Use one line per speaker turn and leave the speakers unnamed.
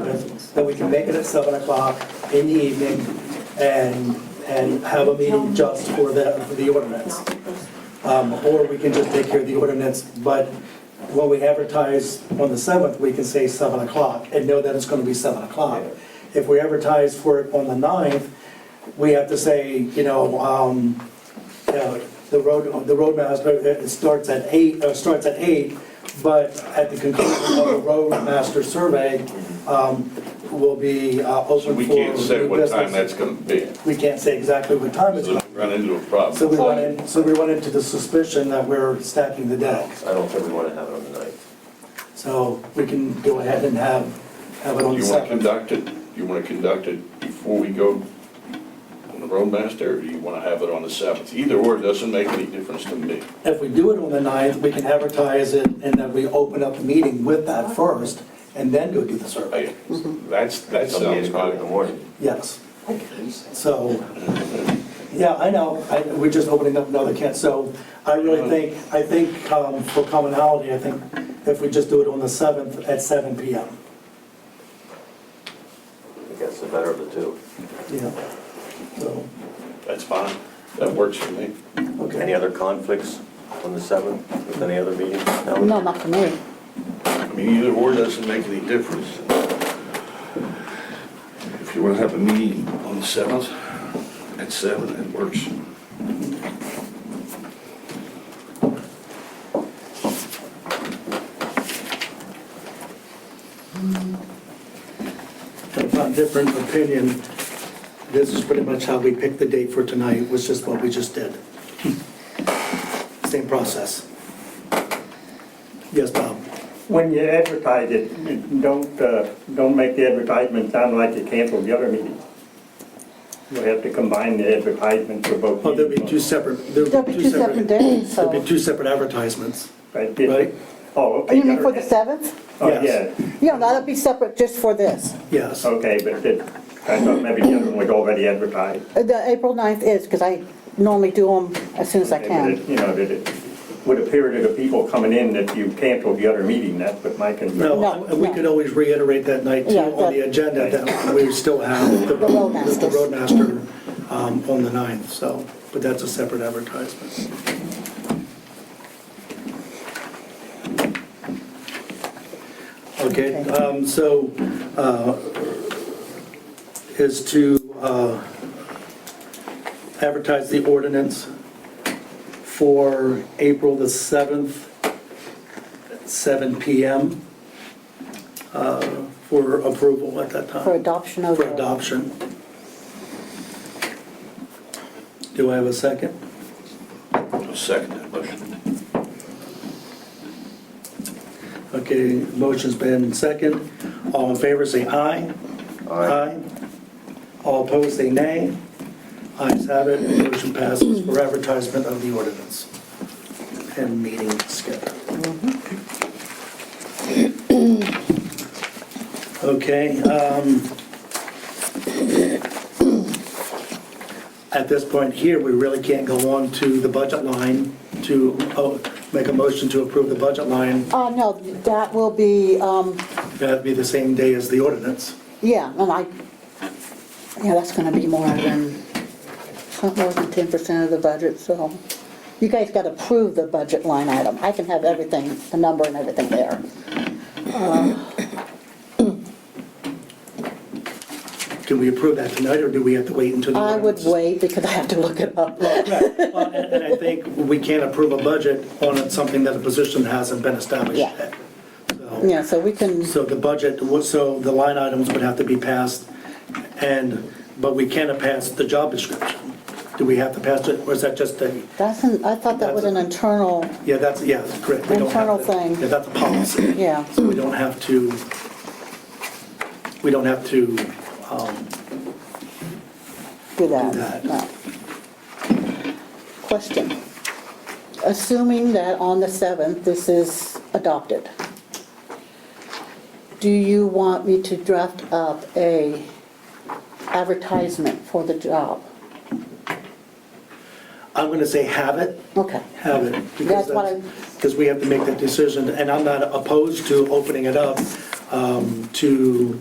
7th, that we can make it at 7 o'clock in the evening and, and have a meeting just for the, for the ordinance. Um, Or we can just take care of the ordinance, but when we advertise on the 7th, we can say 7 o'clock and know that it's going to be 7 o'clock. If we advertise for it on the 9th, we have to say, you know, um, you know, the road, the roadmaster, it starts at eight, uh, starts at eight, but at the conclusion of the roadmaster survey, um, will be uh,
So
open for
we can't say
new
what time
business.
that's gonna be,
We can't say exactly what time it's
so
going
we run into a
So
problem.
we run in, so we run into the suspicion that we're stacking the deck.
I don't think we want to have it on the ninth.
So we can go ahead and have, have it on the
You wanna
second.
conduct it, you wanna conduct it before we go on the roadmaster, or do you wanna have it on the seventh? Either or, it doesn't make any difference to me.
If we do it on the ninth, we can advertise it and then we open up the meeting with that first and then go do the survey.
I-
Mm-hmm.
That's, that
Somebody
sounds
is calling in the
good.
morning.
Yes. So, yeah, I know, I, we're just opening up another can, so I really
Mm-hmm.
think, I think, um, for commonality, I think if we just do it on the seventh at seven P M.
I think that's the better of the two.
Yeah, so,
That's fine, that works for me.
Any
okay.
other conflicts on the seventh with any other meetings?
No, not for me.
I mean, either or doesn't make any difference. If you wanna have a meeting on the seventh, at seven, it works.
If I'm different opinion, this is pretty much how we picked the date for tonight, was just what we just did. Same process. Yes, Bob?
When you advertise it, don't, uh, don't make the advertisement sound like you canceled the other meeting. You have to combine the advertisement for both.
Oh, there'll be two
meetings.
separate, there'll
There'll
be
be two separate days, so.
There'll be two separate advertisements.
Right, did-
right.
Oh, okay.
You mean for the
got it.
7th?
Oh,
Yes.
yeah,
Yeah, that'll be separate just for this.
Yes.
okay, but did, I thought maybe the other one was already advertised.
Uh, The April 9th is, because I normally do them as soon as I
But
can.
it- You know, that it would appear to the people coming in that you canceled the other meeting, that's what my concern.
No,
No,
and we
no.
could always reiterate that night too
Yeah,
on the
that-
agenda that we still have the
The roadmasters.
the roadmaster um, on the 9th, so, but that's a separate advertisement. Okay,
Okay.
um, so uh, is to uh, advertise the ordinance for April the 7th, 7 PM uh, for approval at that time.
For adoption of.
For
the-
adoption. Do I have a second?
I'll second that motion.
Okay, motion's been second. All in favor, say aye. All opposed, say nay. Ayes have it, motion passes for advertisement of the ordinance and meeting schedule. Okay, um, at this point here, we really can't go on to the budget line to, oh, make a motion to approve the budget line.
Uh, no, that will be, um,
That'd be the same day as the ordinance.
yeah, and I, yeah, that's going to be more than, it's not more than 10% of the budget, so. You guys got to approve the budget line item. I can have everything, the number and everything there.
Can we approve that tonight, or do we have to wait until the
I would
ordinance?
wait because I have to look it up.
Right. Well, And and I think we can't approve a budget on something that a position hasn't been established
Yeah.
yet. So-
Yeah, so we can.
So the budget, would- so the line items would have to be passed, and, but we can't pass the job description. Do we have to pass it, or is that just a,
That's an, I thought that was an internal,
yeah, that's, yeah, that's correct. we don't have
Internal
to-
thing.
Yeah, that's a policy.
yeah.
So we don't have to, we don't have to, um, Do
do
that.
that. no. Question. Assuming that on the 7th, this is adopted, do you want me to draft up a advertisement for the job?
I'm going to say have it,
Okay,
have it.
That's what I-
Because we have to make that decision, and I'm not opposed to opening it up um, to